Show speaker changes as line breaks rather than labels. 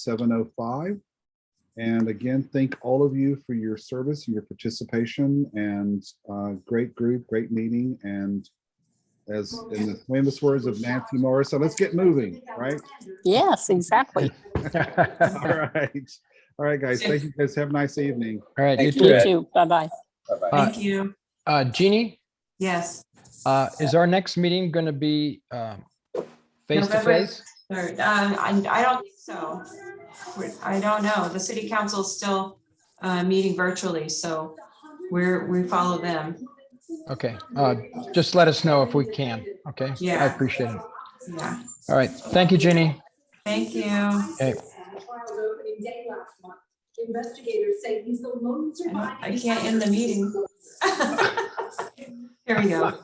seven oh five. And again, thank all of you for your service, your participation and uh, great group, great meeting. And as in the famous words of Nancy Morris, so let's get moving, right?
Yes, exactly.
All right. All right, guys. Thank you guys. Have a nice evening.
All right, you
Thank
too.
You
Good.
too. Bye-bye.
Uh,
Bye-bye.
Thank you.
Uh, Jeannie,
Yes.
uh, is our next meeting going to be um, face to
November-
face?
Third, um, I, I don't think so. We're- I don't know. The city council's still, uh, meeting virtually, so we're, we follow them.
Okay, uh, just let us know if we can, okay? I
Yeah.
appreciate it.
Yeah.
All right, thank you, Jeannie.
Thank you.
Okay.
Investigators say he's the lone survivor.
I can't end the meeting. Here we go.